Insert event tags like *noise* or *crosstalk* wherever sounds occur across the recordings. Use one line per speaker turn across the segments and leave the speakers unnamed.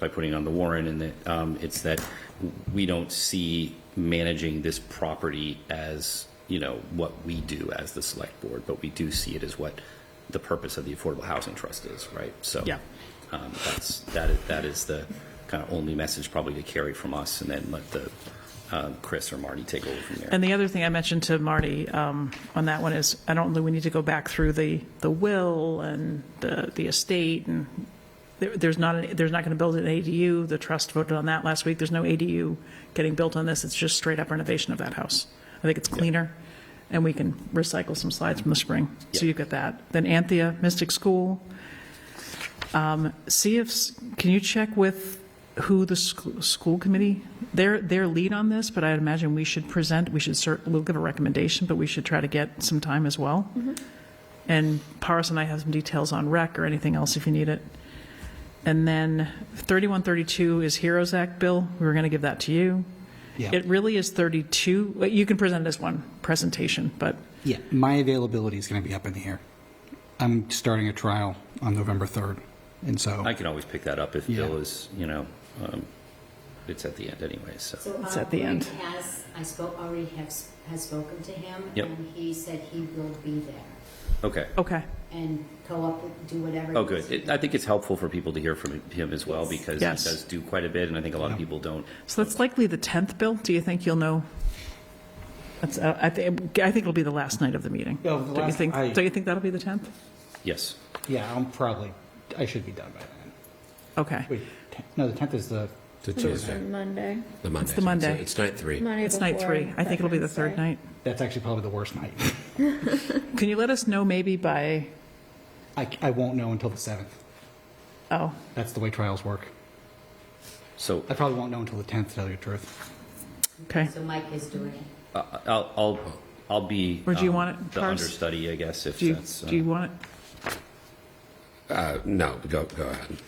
by putting on the warrant, and that, um, it's that we don't see managing this property as, you know, what we do as the select board, but we do see it as what the purpose of the Affordable Housing Trust is, right? So.
Yeah.
Um, that's, that is, that is the kind of only message probably to carry from us, and then let the, um, Chris or Marty take over from there.
And the other thing I mentioned to Marty um, on that one is, I don't know, we need to go back through the, the will and the, the estate, and there- there's not, an- there's not going to build an ADU, the trust voted on that last week, there's no ADU getting built on this, it's just straight-up renovation of that house. I think it's cleaner, and we can recycle some slides from the spring, so
Yeah.
you get that. Then Anthea, Mystic School, see if, s- can you check with who the sc- school committee, their, their lead on this, but I'd imagine we should present, we should cert, we'll give a recommendation, but we should try to get some time as well. And Paris and I have some details on rec or anything else if you need it. And then 3132 is Heroes Act bill, we were going to give that to you.
Yeah.
It really is 32, well, you can present it as one presentation, but
Yeah, my availability is going to be up in the air. I'm starting a trial on November 3rd, and so,
I can always pick that up if
Yeah.
Bill is, you know, um, it's at the end anyway, so.
So
It's
Bob
at the end.
already has, I spoke, already have, has spoken to him.
Yep.
And he said he will be there
Okay.
okay,
and go up, and do whatever.
Oh,
he needs
good.
to
It- I think it's helpful for people to hear from him as well because he
Yes.
does do quite a bit and I think a lot of people don't.
so that's likely the 10th bill, do you think you'll know? That's, uh, I think, I think it'll be the last night of the meeting.
Yeah, the
Don't you
last-
think,
I-
don't you think that'll be the 10th?
Yes.
yeah, I'm probably, I should be done by then.
Okay.
Wait, te- no, the 10th is the,
The Tuesday,
Monday.
the Monday.
the Monday.
It's night three.
Monday
It's night
before
three. I think it'll be the
Veterans
third
Day.
night.
that's actually probably the worst night.
Can you let us know maybe by,
I, I won't know until the 7th.
oh,
That's the way trials work.
So
I probably won't know until the 10th, to tell you the truth.
okay.
do. So Mike is doing it.
uh, I'll, I'll, I'll be.
Or do you
um,
want it
The
first?
understudy, I guess, if
Do you,
that's.
do you
uh,
want it?
Uh, No, go, go ahead.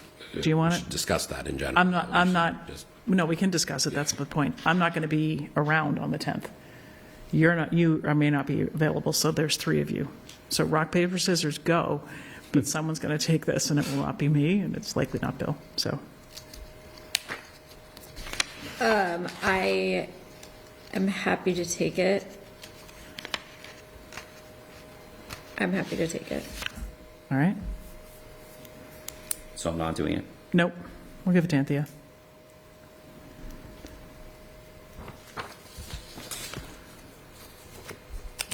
Do you want
We should
it?
Discuss that in general.
I'm not,
We
I'm
should
not,
just-
no, we can discuss it. That's the point. I'm not going to be around on the 10th. You're not, you, I may not be available, so there's three of you. So rock, paper, scissors, go. But someone's going to take this and it will not be me and it's likely not Bill. So
Um, I am happy to take it. I'm happy to take it.
All right.
So I'm not doing it.
Nope. We'll give it to Anthea.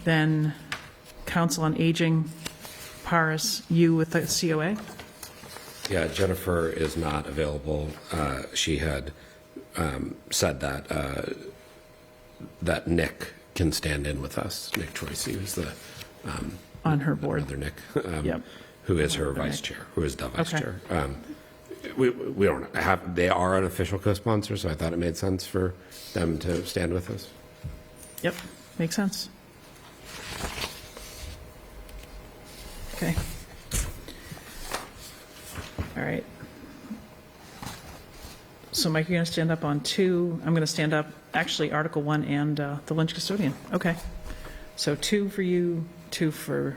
Then Council on Aging, Paris, you with the COA?
Yeah, Jennifer is not available. Uh, She had um, said that, uh, that Nick can stand in with us. Nick Troisi who's the. um,
On her board.
Another Nick. um,
Yep.
Who is her vice chair, who is the vice
Okay.
chair. Um, We, we don't have, they are an official co-sponsor, so I thought it made sense for them to stand with us.
Yep, makes sense. Okay. All right. So Mike, you're going to stand up on two, I'm going to stand up, actually, Article One and uh, the Lynch custodian. Okay. So two for you, two for,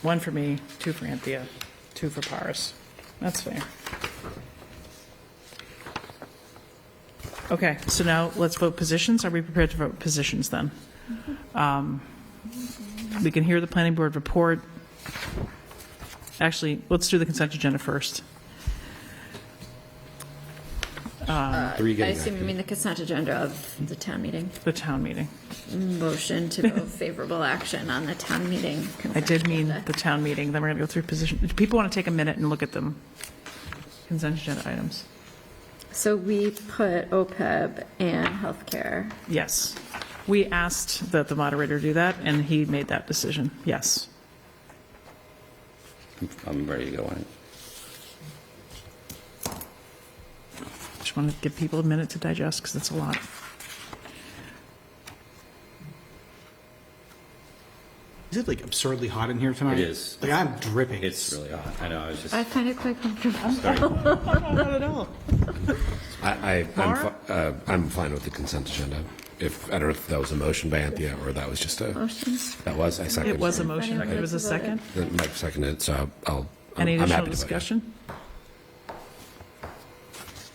one for me, two for Anthea, two for Paris. That's fair. Okay, so now let's vote positions. Are we prepared to vote positions then? Um, We can hear the planning board report. Actually, let's do the consent agenda first.
Three
I
getting
assume you mean the consent agenda of the town meeting.
The town meeting.
Motion to *laughs* vote favorable action on the town meeting.
I
consent
did mean
agenda.
the town meeting, then we're going to go through position. if People want to take a minute and look at them. Consent agenda items.
So we put OPEB and healthcare.
Yes. We asked that the moderator do that, and he made that decision. Yes.
I'm- I'm ready to go on it.
Just want to give people a minute to digest, because it's a lot.
Is it like absurdly hot in here tonight?
It is.
Like, I'm dripping.
It's really hot. I know, I was just,
I find it quite comfortable.
Not at all.
I, I, I'm,
Mara?
fi- uh, I'm fine with the consent agenda. If, I don't know if that was a motion by Anthea or that was just a,
Motion.
that was, I seconded.
It was a motion.
Anyone
There was a
like to vote it?
second.
Then Mike seconded, it, so I'll, I'm
Any
I'm
additional
happy to vote yes.
discussion?